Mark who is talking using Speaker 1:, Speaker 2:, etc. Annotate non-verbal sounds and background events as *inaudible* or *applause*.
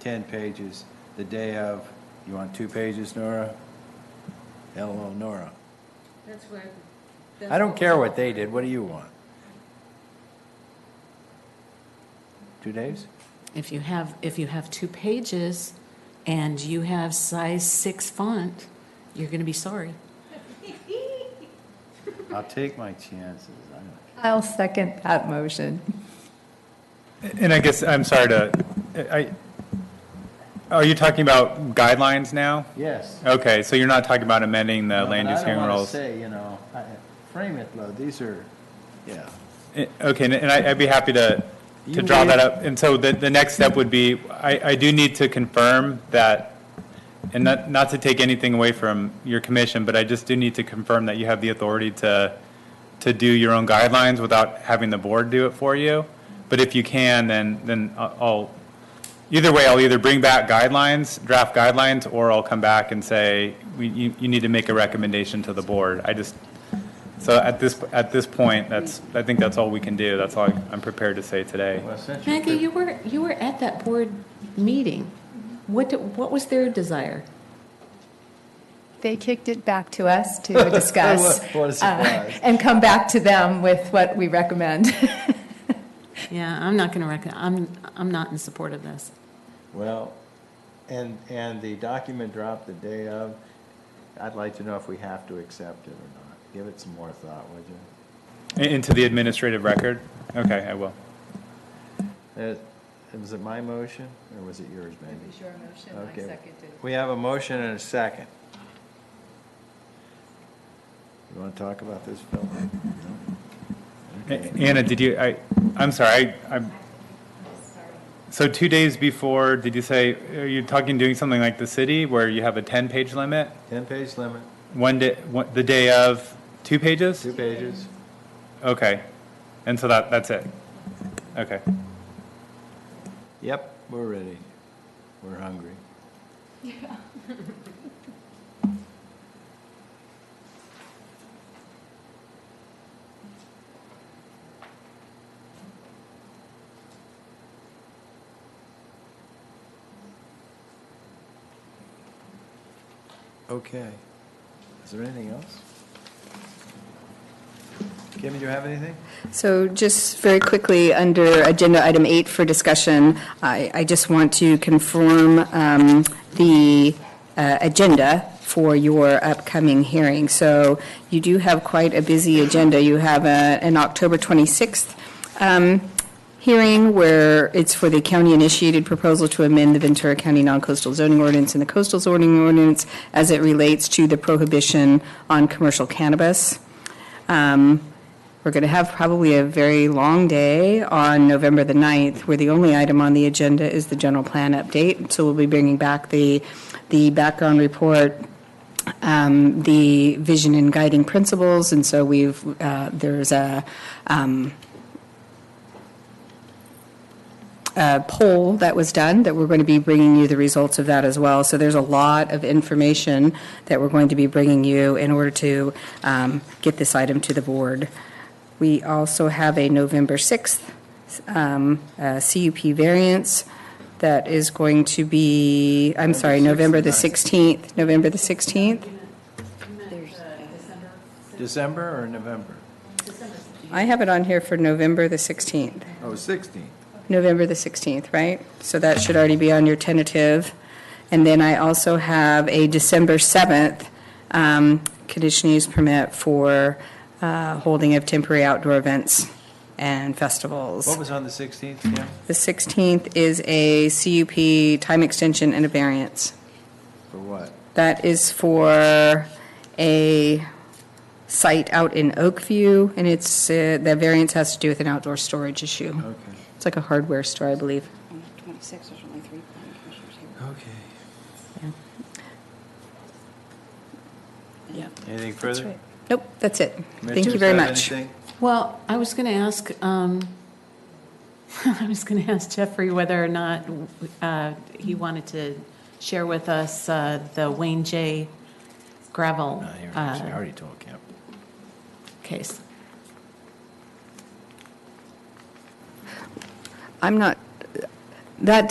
Speaker 1: 10 pages the day of. You want two pages, Nora? LO Nora.
Speaker 2: That's what.
Speaker 1: I don't care what they did, what do you want? Two days?
Speaker 3: If you have, if you have two pages and you have size six font, you're going to be sorry.
Speaker 1: I'll take my chances. I don't-
Speaker 4: I'll second that motion.
Speaker 5: And I guess, I'm sorry to, I, are you talking about guidelines now?
Speaker 1: Yes.
Speaker 5: Okay, so you're not talking about amending the
Speaker 1: No, but
Speaker 5: land use hearing
Speaker 1: I don't want
Speaker 5: rules?
Speaker 1: to say, you know, I- frame it though, these are, yeah.
Speaker 5: Eh, Okay, and- and I- I'd be happy to,
Speaker 1: You
Speaker 5: to draw that
Speaker 1: may-
Speaker 5: up. And so the, the next step would be, I, I do need to confirm that, and not, not to take anything away from your commission, but I just do need to confirm that you have the authority to, to do your own guidelines without having the board do it for you. But if you can, then, then I- I'll, either way, I'll either bring back guidelines, draft guidelines, or I'll come back and say, we, you, you need to make a recommendation to the board. I just, so at this, at this point, that's, I think that's all we can do. That's all I'm prepared to say today.
Speaker 1: *laughs* Well, since you're
Speaker 3: Maggie, you were, you were at that board meeting. What, did- what was their desire?
Speaker 4: They kicked it back to us to
Speaker 1: *laughs*
Speaker 4: discuss.
Speaker 1: What a surprise.
Speaker 4: uh, And come back to them with what we recommend. *laughs*
Speaker 3: Yeah, I'm not going to reckon, I'm, I'm not in support of this.
Speaker 1: Well, and, and the document dropped the day of, I'd like to know if we have to accept it or not. Give it some more thought, would you?
Speaker 5: In- Into the administrative record? Okay, I will.
Speaker 1: It- Was it my motion, or was it yours, Maggie?
Speaker 2: It was your motion, I
Speaker 1: Okay.
Speaker 2: seconded.
Speaker 1: We have a motion and a second. You want to talk about this, Phil?
Speaker 5: A- Anna, did you, I, I'm sorry, I, I'm, so two days before, did you say, are you talking, doing something like the city where you have a 10-page limit?
Speaker 1: Ten-page limit,
Speaker 5: One day, one- the day of, two pages?
Speaker 1: two pages.
Speaker 5: Okay. And so that, that's it? Okay.
Speaker 1: Yep, we're ready. We're hungry. Okay. Is there anything else? Kim, do you have anything?
Speaker 6: So just very quickly, under Agenda Item 8 for discussion, I I just want to confirm um, the uh, agenda for your upcoming hearing. So you do have quite a busy agenda. You have a- an October 26th um, hearing where it's for the county-initiated proposal to amend the Ventura County Non-Coastal Zoning Ordinance and the Coastal Zoning Ordinance as it relates to the prohibition on commercial cannabis. Um, We're going to have probably a very long day on November the 9th, where the only item on the agenda is the general plan update. So we'll be bringing back the, the background report, um, the vision and guiding principles. And so we've, uh, there's a, um, a uh, poll that was done, that we're going to be bringing you the results of that as well. So there's a lot of information that we're going to be bringing you in order to um, get this item to the board. We also have a November 6th um, uh, CUP variance that is going to be, I'm sorry, November the 16th, November the 16th.
Speaker 1: December or November?
Speaker 6: I have it on here for November the 16th.
Speaker 1: Oh, 16th.
Speaker 6: November the 16th, right? So that should already be on your tentative. And then I also have a December 7th um, conditional use permit for uh, holding of temporary outdoor events and
Speaker 1: What
Speaker 6: festivals.
Speaker 1: was on the 16th, Kim?
Speaker 6: The 16th is a CUP time extension and a variance.
Speaker 1: For what?
Speaker 6: That is for a site out in Oakview, and it's, uh, the variance has to do with an outdoor storage issue.
Speaker 1: Okay.
Speaker 6: It's like a hardware store, I believe.
Speaker 7: On the 26th, there's only three planning commissioners here.
Speaker 1: Okay.
Speaker 3: Yeah.
Speaker 1: Anything further?
Speaker 6: Nope, that's it. Thank you very much.
Speaker 3: Well, I was going to ask, um, *laughs* I was going to ask Jeffrey whether or not uh, he wanted to share with us uh, the Wayne J. gravel
Speaker 1: I
Speaker 3: uh,
Speaker 1: already told Kim.
Speaker 3: case.
Speaker 6: I'm not, that